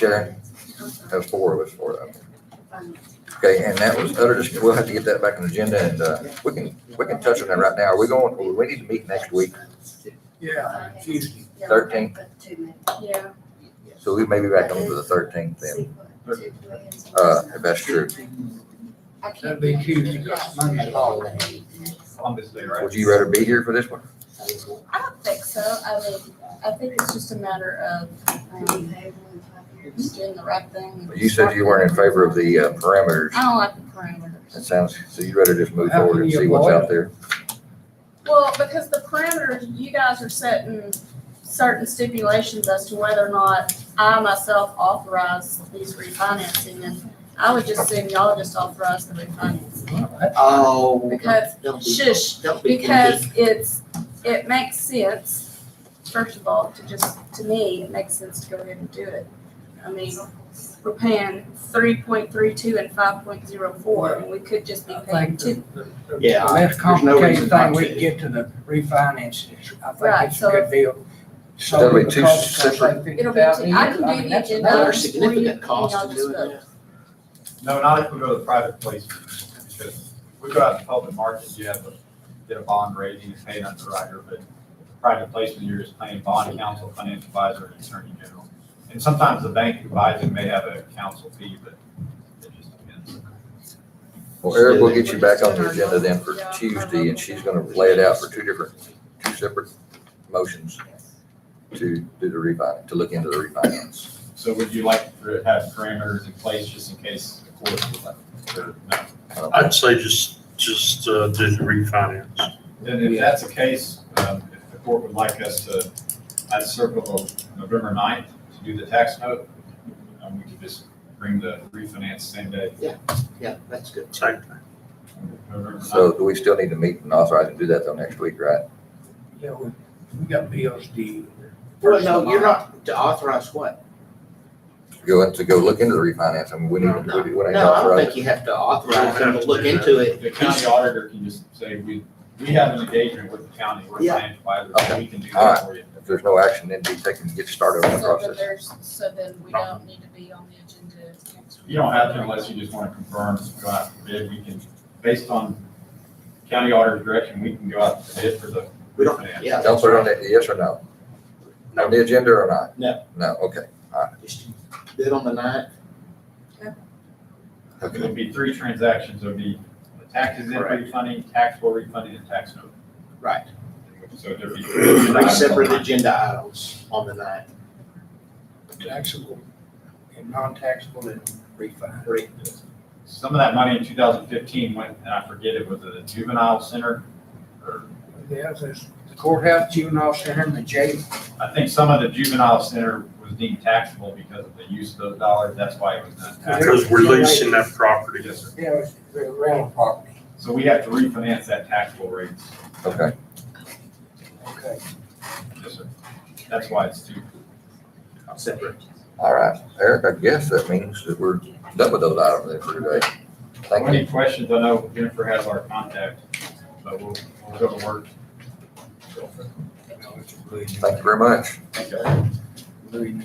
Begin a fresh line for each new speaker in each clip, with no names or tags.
Sharon, that was four of us for that. Okay, and that was utter, dis- we'll have to get that back on the agenda and, uh, we can, we can touch on that right now. We're going, we need to meet next week,
Yeah, Tuesday.
thirteenth,
Yeah.
so we may be back on to the thirteenth then, uh, if that's true.
That'd be Tuesday, 'cause Monday's holiday.
Columbus Day, right?
Would you rather be here for this one?
I don't think so. I mean, I think it's just a matter of um, just doing the right thing.
You said you weren't in favor of the uh, parameters.
I don't like the parameters.
That sounds, so you'd rather just move forward and see what's out there?
Well, because the parameters, you guys are setting certain stipulations as to whether or not I myself authorize these refinancing. And I would just assume y'all just authorize the refinancing.
Oh.
Because
don't be-
shush,
don't be
Because it's, it makes sense, first of all, to just, to me, it makes sense to go ahead and do it. I mean, we're paying three point three two and five point zero four, and we could just be
I
paying
think
two.
the, the, the
Yeah,
less
there's no reason
complicated
not
thing, we
to.
can get to the refinances, I
Right,
think it's
so
a good deal. So
That'll be two separate-
It'll be, two- I can do the agenda.
Are there
for you,
significant
and
costs
y'all
to
just
doing
vote.
that?
No, not if we go to the private place, because we go out to public markets, you have to get a bond rating, it's paid underwriter, but private placement, you're just paying bond counsel, financial advisor, and attorney general. And sometimes the bank who buys it may have a counsel fee, but it just depends.
Well, Eric, we'll get you back on the agenda then for Tuesday, and she's gonna lay it out for two different, two separate motions to do the refinance, to look into the refinance.
So would you like to have parameters in place just in case the court would like, or no?
I'd say just, just uh, do the refinance.
Then if that's the case, um, if the court would like us to, I'd circle November 9th to do the tax note. Um, we could just bring the refinance same day,
Yeah, that's good.
Same thing.
November 9th.
So do we still need to meet and authorize and do that till next week, right?
Yeah, we, we got bills due.
Well, no, you're not to authorize what?
Go, to go look into the refinance, I mean, we need,
No,
we
no,
need we need to
No, I don't
authorize.
think you have to authorize them to look into it.
The county auditor can just say, we, we have an engagement with the county, we're
Yeah.
signed by
Okay.
the, we can do that for you.
If there's no action, then be taken, get started on the
So then
process.
there's, so then we don't need to be on the agenda next week.
You don't have to unless you just want to confirm, go out for bid, we can, based on county auditor's direction, we can go out for bid for the
We don't,
refinance.
yeah.
Don't put it on the, yes or no? On the agenda or not?
No.
No, okay,
Just Bid on the ninth.
It would be three transactions, it would be the taxes in
Correct.
refunding, taxable refunding, and tax note.
Right.
So there'd be.
Three separate agenda items on the ninth.
Taxable and non-taxable and refined.
Three.
Some of that money in two thousand fifteen went, and I forget it was a juvenile center, or,
Yeah, there's the courthouse, juvenile center, and the jail.
I think some of the juvenile center was deemed taxable because of the use of those dollars, that's why it was not taxable.
Because we're leasing that property.
Yes, sir.
Yeah, it's the rental property.
So we have to refinance that taxable rate.
okay.
Okay.
Yes, sir. That's why it's two.
Separate.
All right, Eric, I guess that means that we're done with those items then for today. Thank you.
Any questions? I know Jennifer has our contact, but we'll, we'll go to work.
Thank you very much.
Thank you.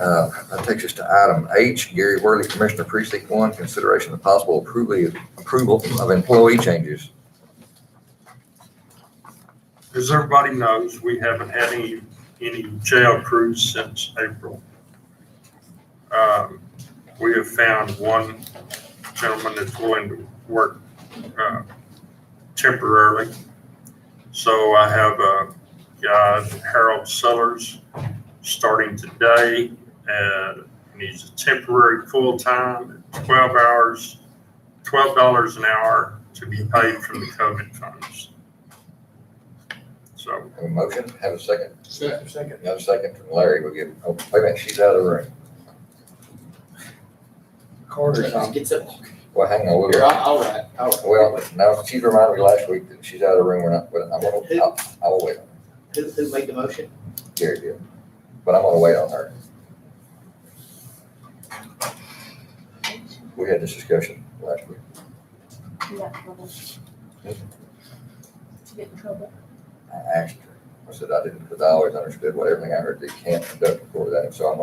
Uh, That takes us to item H, Gary Worley, Commissioner Precinct One, consideration of possible approval, approval of employee changes.
As everybody knows, we haven't had any, any jail crews since April. Um, We have found one gentleman that's willing to work uh, temporarily. So I have a guy, Harold Sellers, starting today. uh, And he's a temporary full-time, 12 hours, $12 an hour to be paid from the COVID funds. So
Have a motion, have a second,
Second.
another second from Larry, we'll give, oh, wait a minute, she's out of the room.
Carter's on.
Gets up.
Well, hang on, we'll,
You're all all right, all right.
well, no, she reminded me last week that she's out of the room, we're not, but I'm gonna, I'll- I will wait on
Who, who made the motion?
Gary did, but I'm gonna wait on her. We had this discussion last week.
You got in trouble. To get in trouble.
I asked her, I said I didn't, because I always understood what everything I heard, they can't conduct before that, so I'm